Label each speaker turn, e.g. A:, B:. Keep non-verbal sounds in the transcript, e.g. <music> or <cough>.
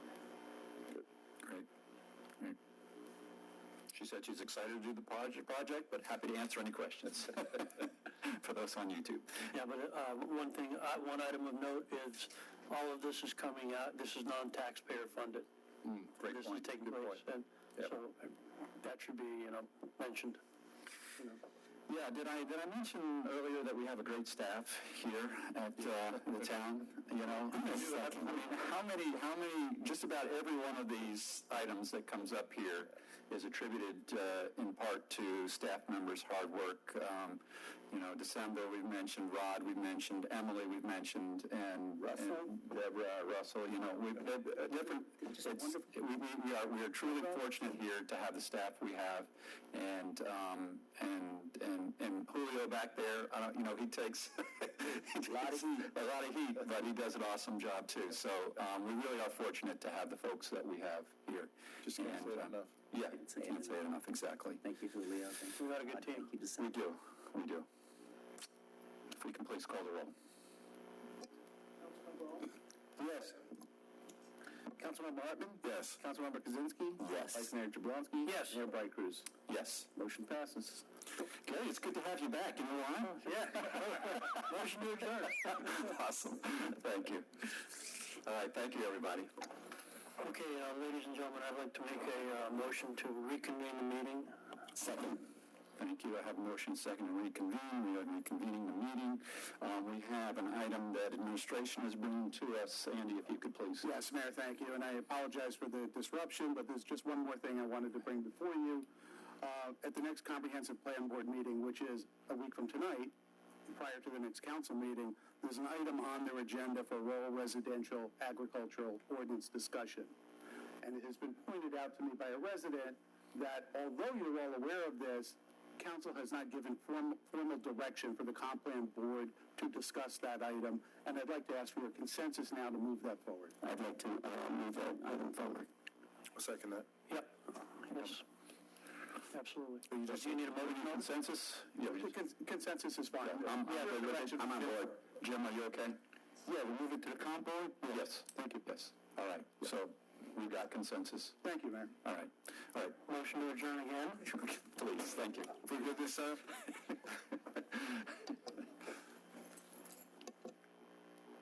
A: said she's excited to do the proj- project, but happy to answer any questions <laughs> for those on YouTube.
B: Yeah, but uh, one thing, uh, one item of note is, all of this is coming out, this is non-taxpayer funded.
A: Mm, Great
B: This is
A: point.
B: taking
A: Good
B: place,
A: point.
B: and
A: Yep.
B: so uh, that should be, you know, mentioned.
A: Yeah, did I, did I mention earlier that we have a great staff here at uh, <laughs> the town, you know? It's like, I mean, how many, how many, just about every one of these items that comes up here is attributed uh, in part to staff members' hard work. Um, You know, December, we've mentioned Rod, we've mentioned Emily, we've mentioned, and
B: Russell.
A: and Deborah, Russell, you know, we've, uh, different, it's, we, we we are, we are truly fortunate here to have the staff we have. And, um, and, and, and Julio back there, I don't, you know, he takes. <laughs> A lot of heat. A lot of heat, but he does an awesome job too. So, um, we really are fortunate to have the folks that we have here.
C: Just can't
A: And,
C: say it
A: um,
C: enough.
A: Yeah, can't say it enough, exactly.
D: Thank you, Julio. Thank you.
B: We've got a good team.
D: Thank you,
A: We
D: December.
A: do, we do. If we can please call the roll.
C: Yes. Councilmember Hartman?
A: Yes.
C: Councilmember Kaczynski?
D: Yes.
C: Vice Mayor Jablonski?
B: Yes.
C: Mayor Bright Cruz?
A: Yes.
C: Motion passes.
A: Gary, it's good to have you back. You know why? Yeah. Motion to adjourn. <laughs> Awesome. Thank you. All right, thank you, everybody.
B: Okay, uh, ladies and gentlemen, I'd like to make a uh, motion to reconvene the meeting.
A: Second. Thank you. I have a motion second to reconvene. We are reconvening the meeting. Um, we have an item that administration is bringing to us. Sandy, if you could please.
C: Yes, Mayor, thank you, and I apologize for the disruption, but there's just one more thing I wanted to bring before you. Uh, At the next comprehensive plan board meeting, which is a week from tonight, prior to the next council meeting, there's an item on their agenda for rural residential agricultural ordinance discussion. And it has been pointed out to me by a resident that although you're all aware of this, council has not given form- formal direction for the comp plan board to discuss that item, and I'd like to ask for your consensus now to move that forward.
A: I'd like to uh, move that item forward.
E: Second that.
B: Yep, yes, absolutely.
A: Do you need a motion consensus? Yeah, we
C: The
A: just-
C: cons- Consensus is fine.
A: I'm,
C: Yeah, the direction-
A: I'm on board. Jim, are you okay? Yeah, we move it to the comp board? Yes, thank you, yes. All right, so we've got consensus.
C: Thank you, Mayor.
A: All right, <laughs> all right.
B: Motion to adjourn again?
A: Please, thank you. <laughs>
E: We good this time?